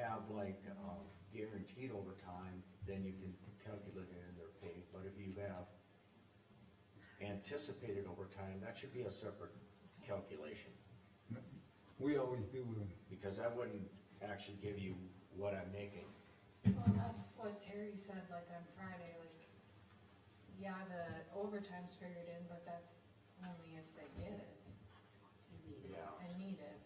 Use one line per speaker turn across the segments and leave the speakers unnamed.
have like, um, guaranteed overtime, then you can calculate it in their pay, but if you have anticipated overtime, that should be a separate calculation,
We always do uh, them.
because that wouldn't actually give you what I'm making.
Well, that's what Terry said, like on Friday, like, yeah, the overtime's figured in, but that's only if they get it
Yeah.
and need it.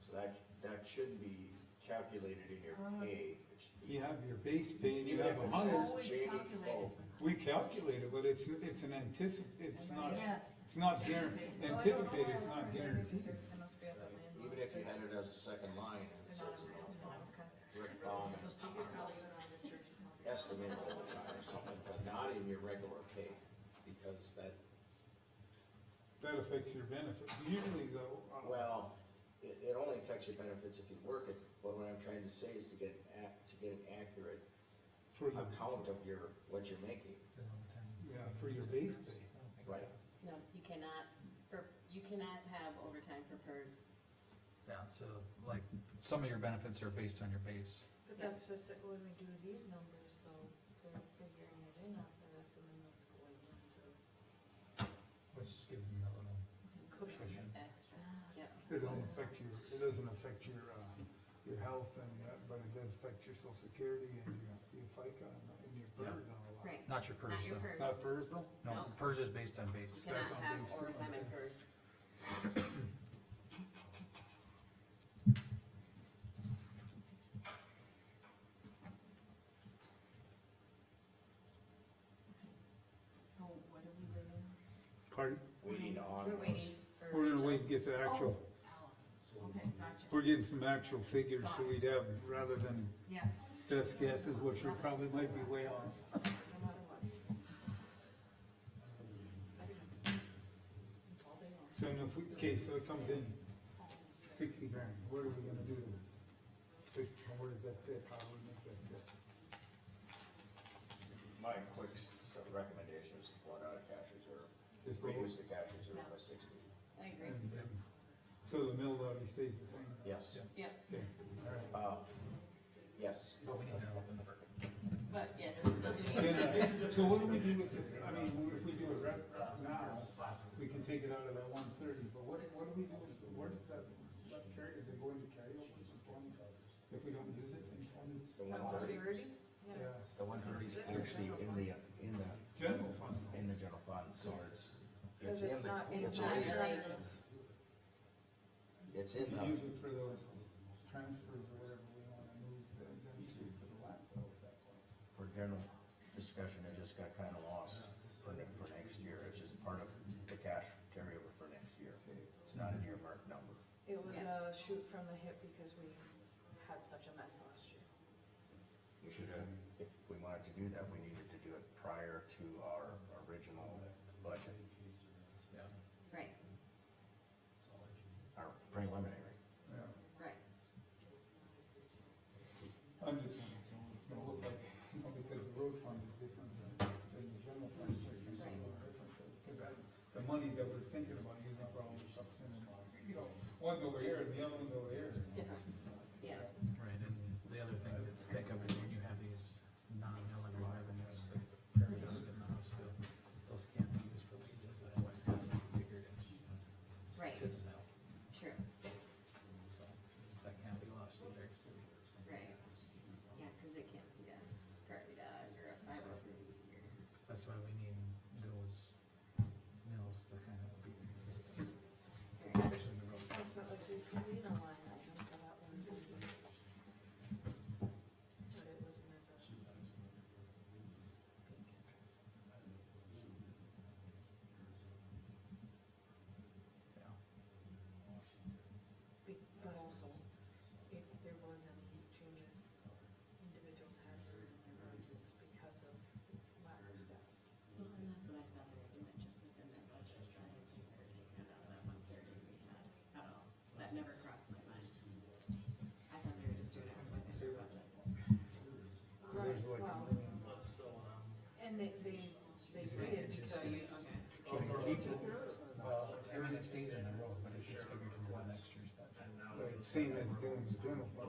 So that, that shouldn't be calculated in your
Uh-huh.
pay. It should be-
You have your base pay and you
Even
have
if
a
it
hundred.
says
Always
JD
calculated.
full,
We calculate it, but it's, it's an anticip, it's not,
Yes.
it's not guaranteed,
Well, I don't know
anticipated,
why
it's
I
not
remember
guaranteed.
this, it must be up on my
Even
inbox,
if you
because
had it as a second line and it
they're
says,
not on
you
my inbox, so I was
know,
constantly-
Rick Bauman estimated overtime or something, but not in your regular pay, because that,
That affects your benefit. Usually though, uh,
well, it, it only affects your benefits if you work it, but what I'm trying to say is to get an ac to get an accurate
for your,
account of your, what you're making.
yeah, for your base pay.
Right.
No, you cannot, for, you cannot have overtime for PERS.
Yeah, so like, some of your benefits are based on your base.
But that's just that when we do these numbers though, they're figuring it in after this and then that's going into
Which is giving them a little.
Cushion. Extra, yep.
It don't affect your, it doesn't affect your, uh, your health and that, but it does affect your social security and your, your FICA and uh, and your
Yeah.
PERS and all that.
Right,
Not your PERS
not your
though.
PERS. Uh,
Not PERS though?
No,
No.
PERS is based on
You
base.
cannot have overtime in PERS.
So what are we waiting?
Pardon?
We need to honor
We're
those.
waiting for.
We're gonna
Rachel.
wait and get the actual,
Alice, okay, gotcha,
we're getting some actual figures, so we'd have, rather than
yes,
best guesses, which we probably might be way off.
no matter what. That's all they want.
So now if we, okay, so it comes in sixty grand, what are we gonna do? Fif- Where does that fit? How do we make that fit?
My quick s- s- recommendation is to flood out a cash reserve,
Just leave
reduce
it.
the cash reserve by sixty.
I agree,
And- and- So the mill levy stays the same?
Yes.
yep,
Okay, all right.
Uh, yes.
But we need to open the burger.
but yes, we still do need.
Yeah, uh, So what do we do with this, I mean, if we do it right now, we can take it out of that one thirty, but what, what do we do, with it? where does that, that carry, is it going to carryover for twenty? If we don't use it in twenty,
The one thirty,
yeah,
the one thirty is actually in the, in the,
general fund,
in the general fund, so it's, it's
Cause
in
it's
the.
not,
it's
it's
not
not
in-
really-
It's
we
in
can
the,
use it for those transfers or whatever we wanna move, the- the- for the laptop.
for general discussion, it just got kinda lost for, ne- for next year, it's just part of the cash carryover for next year. It's not an earmarked number.
It was a shoot from the hip because we had such a mess last year.
We should have, if we wanted to do that, we needed to do it prior to our original budget,
Right,
our preliminary.
Yeah.
right.
I'm just saying, it's it's gonna look like, you know, because the road fund is different than than the general fund, so it's a little different. Because that- The money that we're thinking about using for all the stuff in the, you know, one's over here and the other one's over here.
Different, yeah.
Right, and the other thing to think of is when you have these non-milling revenues that carry us in the hospital, those can't be used for wages, that's why it's figured in.
Right.
To the mill,
True,
so that can't be lost either.
right. Yeah, cause it can't be a prairie dog or a five oh three or.
That's why we need those mills to kind of be consistent. especially the road.
Ultimately, we could lean on line item for that one. But it was in our budget.
Yeah.
Be- But also, if there was any changes, individuals had their arguments because of lack of staff.
Well, and that's what I thought they were doing, just within that budget, trying to keep her taken out of that one thirty we had at all. That never crossed my mind. I thought they were just doing it within their budget.
Right, well. And they, they, they did, so you,
Okay.
Keep it- keep it- Well, everything stays in the road, but it gets figured into next year's budget.
Like, Same as doing the general fund.